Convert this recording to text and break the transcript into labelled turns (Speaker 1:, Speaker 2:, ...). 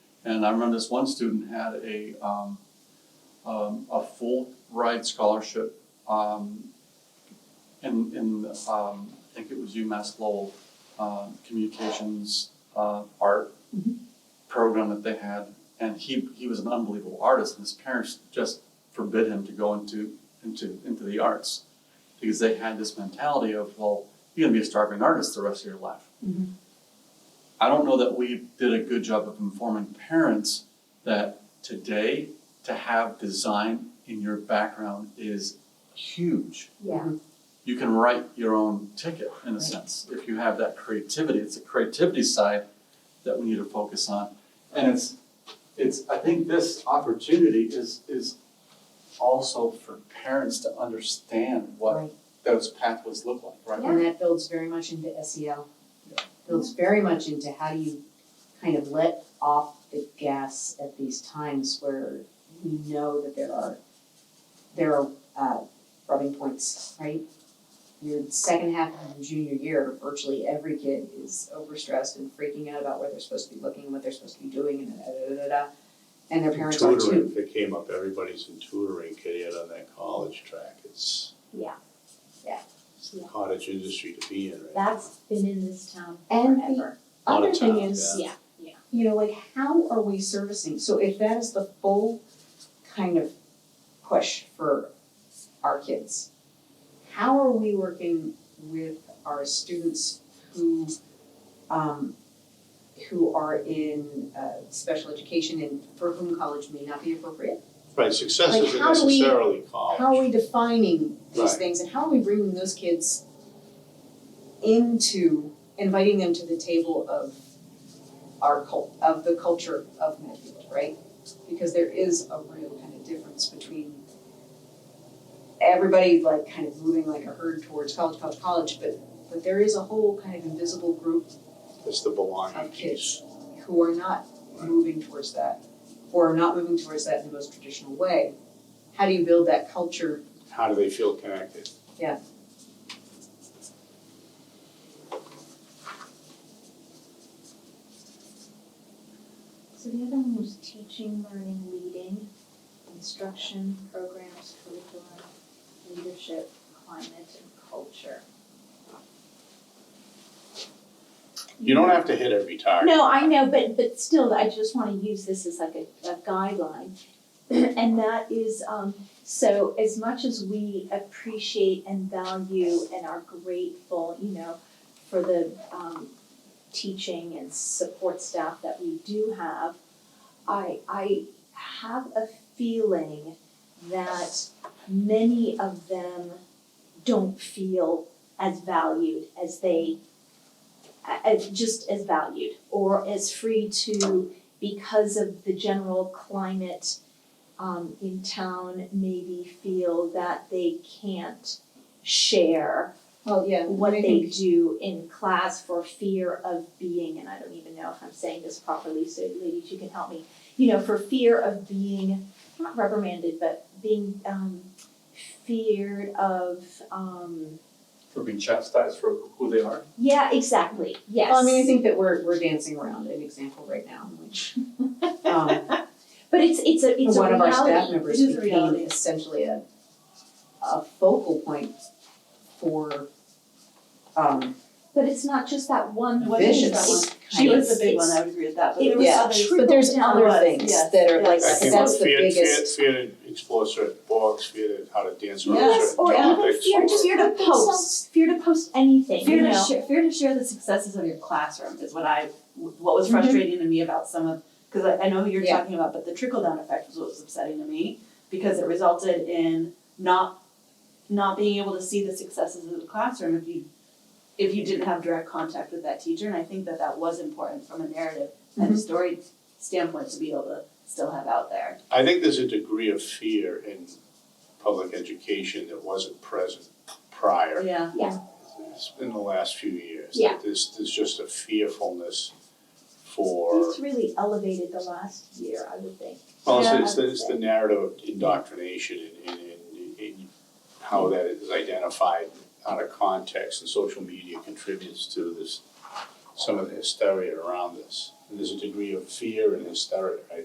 Speaker 1: And I remember this one student had a, um, um, a full ride scholarship, um, in, in, um, I think it was UMass Lowell, um, communications, uh, art
Speaker 2: Mhm.
Speaker 1: program that they had. And he, he was an unbelievable artist and his parents just forbid him to go into, into, into the arts. Because they had this mentality of, well, you're gonna be a starving artist the rest of your life.
Speaker 2: Mhm.
Speaker 1: I don't know that we did a good job of informing parents that today to have design in your background is huge.
Speaker 2: Yeah.
Speaker 1: You can write your own ticket in a
Speaker 2: Right.
Speaker 1: sense if you have that creativity. It's the creativity side that we need to focus on. And it's it's I think this opportunity is is also for parents to understand what
Speaker 2: Right.
Speaker 1: those pathways look like, right?
Speaker 2: And that builds very much into SEL.
Speaker 1: Yeah.
Speaker 2: Builds very much into how do you kind of let off the gas at these times where we know that there are, there are, uh, rubbing points, right? Your second half of your junior year, virtually every kid is overstressed and freaking out about where they're supposed to be looking, and what they're supposed to be doing, and da, da, da, da, da. And their parents are
Speaker 3: Tutoring,
Speaker 2: too.
Speaker 3: if it came up, everybody's in tutoring, Kid on that college track, it's.
Speaker 4: Yeah. Yeah.
Speaker 3: It's the cottage industry to be in, right?
Speaker 4: That's been in this town
Speaker 2: And the
Speaker 4: forever.
Speaker 3: Lot of
Speaker 2: Other thing
Speaker 3: times,
Speaker 2: is,
Speaker 3: yeah.
Speaker 4: Yeah.
Speaker 2: you know, like how are we servicing? So if that is the full kind of push for our kids, how are we working with our students who um who are in uh special education and for whom college may not be appropriate?
Speaker 3: Right, success
Speaker 2: Like,
Speaker 3: isn't
Speaker 2: how do we-
Speaker 3: necessarily college.
Speaker 2: How are we defining these
Speaker 3: Right.
Speaker 2: things and how are we bringing those kids into inviting them to the table of our cult of the culture of Medfield, right? Because there is a real kind of difference between everybody like kind of moving like a herd towards college, college, college, but but there is a whole kind of invisible group
Speaker 3: It's the belonging
Speaker 2: of kids
Speaker 3: piece.
Speaker 2: who are not
Speaker 3: Right.
Speaker 2: moving towards that or not moving towards that in the most traditional way. How do you build that culture
Speaker 3: How do they feel connected?
Speaker 4: So the other one was teaching, learning, leading, instruction, programs, curriculum, leadership, climate, and culture.
Speaker 3: You don't have to hit every target.
Speaker 4: No, I know, but but still, I just wanna use this as like a a guideline. And that is, um, so as much as we appreciate and value and are grateful, you know, for the um teaching and support staff that we do have, I I have a feeling that many of them don't feel as valued as they a- as just as valued or as free to because of the general climate um, in town maybe feel that they can't share
Speaker 2: Well, yeah,
Speaker 4: what
Speaker 2: I
Speaker 4: they
Speaker 2: think-
Speaker 4: do in class for fear of being and I don't even know if I'm saying this properly so ladies you can help me you know for fear of being not reprimanded but being um, feared of um,
Speaker 1: For being chastised for who they are.
Speaker 4: yeah exactly yes
Speaker 2: Well, I mean, I think that we're we're dancing around an example right now in which um
Speaker 4: But it's it's a it's a
Speaker 2: one of our staff
Speaker 4: reality.
Speaker 2: members
Speaker 4: It is a
Speaker 2: became
Speaker 4: reality.
Speaker 2: essentially a a focal point for um
Speaker 4: But it's not just that one.
Speaker 2: What is that
Speaker 4: It's-
Speaker 2: one?
Speaker 5: She was the big
Speaker 4: it's-
Speaker 5: one, I would agree with that, but
Speaker 4: it
Speaker 5: there
Speaker 4: was
Speaker 5: was
Speaker 2: yeah,
Speaker 5: others.
Speaker 4: true.
Speaker 2: but there's
Speaker 4: Trickle
Speaker 2: other
Speaker 5: down.
Speaker 2: things
Speaker 5: Yes,
Speaker 2: that are like
Speaker 5: yes.
Speaker 3: That came
Speaker 2: that's
Speaker 3: up,
Speaker 2: the
Speaker 3: fear- fear-
Speaker 2: biggest
Speaker 3: Fear, to explore certain bogs, fear to how to dance around
Speaker 5: Yes,
Speaker 3: certain
Speaker 4: Or even
Speaker 3: topics,
Speaker 4: fear,
Speaker 3: or-
Speaker 4: just fear to post, fear to post anything, you
Speaker 5: Fear to
Speaker 4: know?
Speaker 5: share, fear to share the successes of your classroom is what I, what was frustrating to me about some of, cause I, I know who you're
Speaker 2: Yeah.
Speaker 5: talking about, but the trickle down effect was what was upsetting to me. Because it resulted in not, not being able to see the successes of the classroom if you, if you didn't have direct contact with that teacher. And I think that that was important from a narrative and a story standpoint to be able to still have out there.
Speaker 3: I think there's a degree of fear in public education that wasn't present prior.
Speaker 5: Yeah.
Speaker 3: It's been the last few years.
Speaker 4: Yeah.
Speaker 3: There's, there's just a fearfulness for,
Speaker 4: It's really elevated the last year, I would think.
Speaker 3: well, it's-
Speaker 4: Yeah.
Speaker 3: it's, the- it's the narrative of indoctrination and, and, and, and how that is identified out of context and social media contributes to this, some of the hysteria around this. And there's a degree of fear and hysteria, right?